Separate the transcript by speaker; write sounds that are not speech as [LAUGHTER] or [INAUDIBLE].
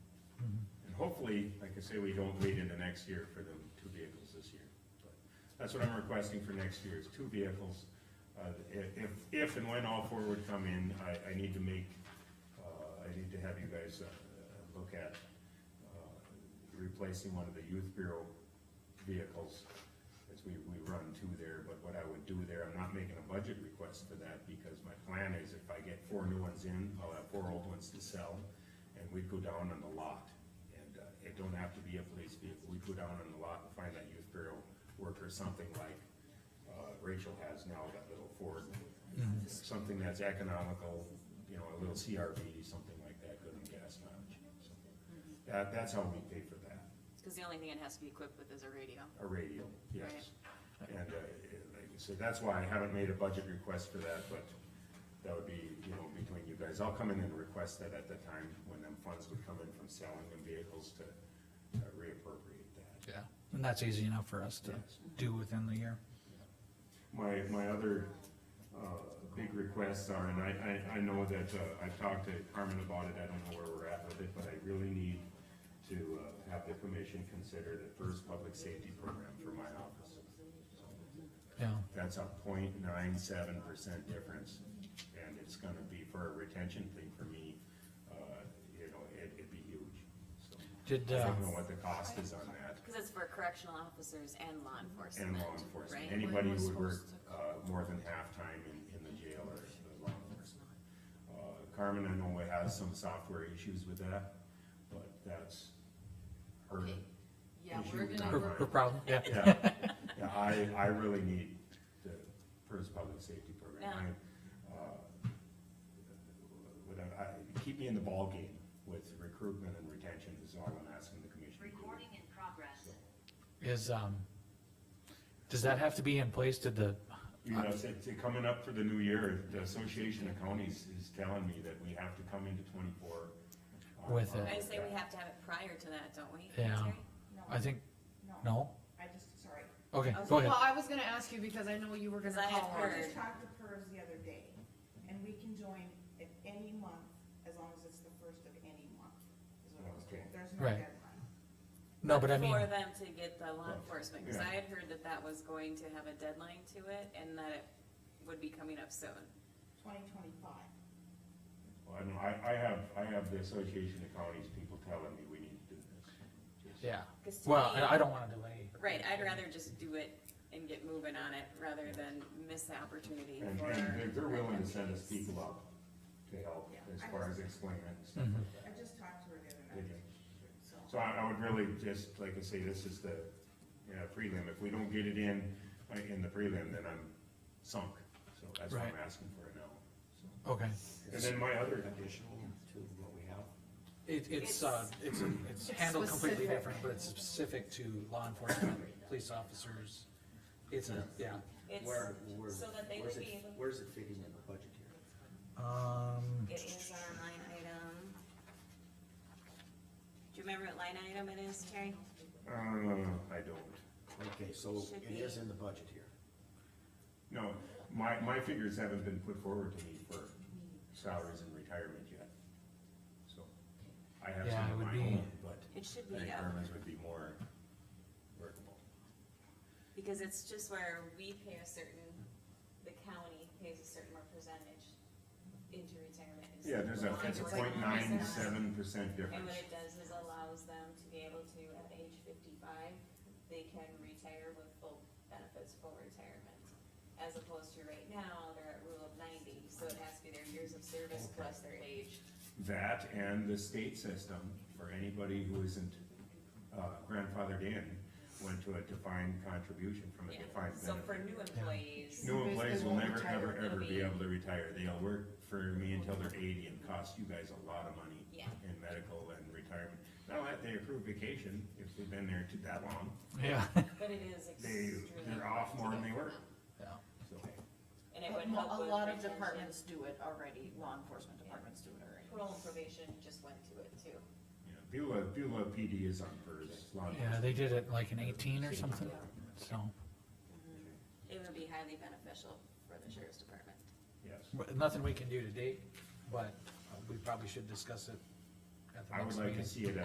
Speaker 1: hopefully, like I say, we don't wait into next year for the two vehicles this year. But That's what I'm requesting for next year, is two vehicles. Uh, if, if- if and when all four would come in, I, I need to make, uh, I need to have you guys, uh, uh, look at, uh, replacing one of the youth bureau vehicles. As we, we run two there, but what I would do there, I'm not making a budget request for that, because my plan is if I get four new ones in, I'll have four old ones to sell. And we'd go down on the lot, and, uh, it don't have to be a police vehicle, we'd go down on the lot and find that youth bureau worker, something like, uh, Rachel has now, that little Ford. Something that's economical, you know, a little CRV, something like that, good on gas mileage, so. That, that's how we pay for that.
Speaker 2: Cause the only thing it has to be equipped with is a radio.
Speaker 1: a radio, yes. And, uh, like I said, that's why I haven't made a budget request for that, but that would be, you know, between you guys. I'll come in and request that at the time when them funds would come in from selling them vehicles to uh, reappropriate that.
Speaker 3: Yeah, and that's easy enough for us to
Speaker 1: Yes.
Speaker 3: do within the year.
Speaker 1: My, my other, uh, big requests are, and I, I, I know that, uh, I've talked to Carmen about it, I don't know where we're at with it, but I really need to, uh, have the commission consider the first public safety program for my office.
Speaker 3: Yeah,
Speaker 1: That's a 0.97 percent difference, and it's gonna be for a retention thing for me, uh, you know, it, it'd be huge. So,
Speaker 3: did,
Speaker 1: I
Speaker 3: uh,
Speaker 1: don't know what the cost is on that,
Speaker 2: Cause it's for correctional officers and law enforcement,
Speaker 1: and law
Speaker 2: right?
Speaker 1: enforcement, anybody who would work, uh, more than half-time in, in the jail or the law enforcement. Uh, Carmen, I know has some software issues with that, but that's her.
Speaker 4: Okay, Yeah,
Speaker 1: Issue
Speaker 4: we're
Speaker 1: with
Speaker 4: gonna
Speaker 3: her,
Speaker 1: timeline.
Speaker 4: work
Speaker 3: her problem, yeah,
Speaker 1: Yeah, yeah, I, I really need the PERS public safety program, I, uh, without, I, keep me in the ballgame with recruitment and retention is all I'm asking the commission to do.
Speaker 5: Recording in progress.
Speaker 3: is, um, does that have to be in place, did the,
Speaker 1: You know, it's, it's coming up for the new year, the Association of Counties is telling me that we have to come into twenty-four. Uh, on-
Speaker 3: With it.
Speaker 2: I say we have to have it prior to that, don't we?
Speaker 3: Yeah.
Speaker 2: Terry?
Speaker 4: No,
Speaker 3: I think,
Speaker 4: no,
Speaker 3: no?
Speaker 4: I just, sorry.
Speaker 3: Okay,
Speaker 2: Okay.
Speaker 3: go ahead,
Speaker 6: Well, I was gonna ask you because I know you were gonna
Speaker 2: Because I had
Speaker 4: I
Speaker 6: call on
Speaker 2: heard.
Speaker 6: it.
Speaker 4: just talked to PERS the other day, and we can join at any month, as long as it's the first of any month, is what I was told.
Speaker 1: Okay.
Speaker 4: There's no
Speaker 3: Right.
Speaker 4: deadline.
Speaker 3: no, but I mean,
Speaker 2: For them to get the law enforcement, cause
Speaker 1: Yeah.
Speaker 2: I had heard that that was going to have a deadline to it and that it would be coming up soon.
Speaker 4: Twenty twenty-five.
Speaker 1: Well, I know, I, I have, I have the Association of Counties people telling me we need to do this.
Speaker 3: yeah,
Speaker 2: 'Cause to
Speaker 3: well,
Speaker 2: me-
Speaker 3: I, I don't wanna delay.
Speaker 2: Right, I'd rather just do it and get moving on it rather than miss the opportunity
Speaker 1: And,
Speaker 2: for.
Speaker 1: and they're, they're willing to send us people up to help
Speaker 4: Yeah.
Speaker 1: as far as explaining it and stuff
Speaker 3: Mhm.
Speaker 1: like that.
Speaker 4: I just talked to her the other
Speaker 1: Did
Speaker 4: night,
Speaker 1: you?
Speaker 4: so.
Speaker 1: So I, I would really just, like I say, this is the, you know, prelim, if we don't get it in, uh, in the prelim, then I'm sunk, so that's what I'm
Speaker 3: Right.
Speaker 1: asking for it now.
Speaker 3: Okay,
Speaker 1: so. And then my other,
Speaker 7: additional to what we have.
Speaker 3: it, it's, uh, it's, it's handled completely
Speaker 6: specific.
Speaker 3: different, but it's specific to law enforcement, police officers. It's a, yeah,
Speaker 2: It's
Speaker 7: Where, where,
Speaker 2: so that they
Speaker 7: where's
Speaker 2: would
Speaker 7: it-
Speaker 2: be able-
Speaker 7: Where's it fitting in the budget here?
Speaker 3: um,
Speaker 2: It is our line item. Do you remember what line item it is, Terry?
Speaker 1: uh, I don't,
Speaker 7: Okay, so
Speaker 2: Should
Speaker 7: it is in the budget here.
Speaker 1: no, my, my figures haven't been put forward to me for salaries and retirement yet. So, I have
Speaker 3: Yeah,
Speaker 1: some
Speaker 3: it
Speaker 1: of
Speaker 3: would
Speaker 1: my
Speaker 3: be-
Speaker 1: own, but
Speaker 2: It should
Speaker 1: I
Speaker 2: be,
Speaker 1: think
Speaker 2: yeah,
Speaker 1: Herman's would be more workable.
Speaker 2: because it's just where we pay a certain, the county pays a certain percentage into retirement. It's
Speaker 1: Yeah, there's a,
Speaker 2: like
Speaker 1: it's a
Speaker 2: like
Speaker 1: point nine
Speaker 2: percent.
Speaker 1: seven percent
Speaker 2: And
Speaker 1: difference.
Speaker 2: what it does is allows them to be able to, at age fifty-five, they can retire with full benefits, full retirement. As opposed to right now, they're at rule of ninety, so it has to be their years of service plus their age.
Speaker 1: That and the state system, for anybody who isn't uh, grandfathered in, went to a defined contribution from a
Speaker 2: Yeah.
Speaker 1: defined
Speaker 2: So for
Speaker 1: benefit.
Speaker 2: new employees.
Speaker 1: New employees will
Speaker 6: won't
Speaker 1: never,
Speaker 6: retire.
Speaker 1: ever, ever
Speaker 2: They'll
Speaker 1: be
Speaker 2: be-
Speaker 1: able to retire. They'll work for me until they're eighty and cost you guys a lot of money
Speaker 2: Yeah.
Speaker 1: in medical and retirement. Now, that they accrue vacation, if they've been there too that long,
Speaker 3: yeah,
Speaker 2: But it is
Speaker 1: they,
Speaker 2: extremely.
Speaker 1: they're off more than they were,
Speaker 3: yeah.
Speaker 1: so.
Speaker 2: And it
Speaker 6: But
Speaker 2: would
Speaker 6: mo-
Speaker 2: help
Speaker 6: A
Speaker 2: with
Speaker 6: lot of
Speaker 2: retention.
Speaker 6: departments do it already, law enforcement departments do it already.
Speaker 2: Parole and probation just went to it too.
Speaker 1: you know, Beulah, Beulah PD is on PERS. law
Speaker 3: [LAUGHS] Yeah,
Speaker 1: enforcement.
Speaker 3: they did it like in eighteen or something, so,
Speaker 2: It would be highly beneficial for the sheriff's department.
Speaker 1: Yes.
Speaker 3: but nothing we can do today, but we uh, probably should discuss it at the
Speaker 1: I would
Speaker 3: next
Speaker 1: like to
Speaker 3: meeting.
Speaker 1: see it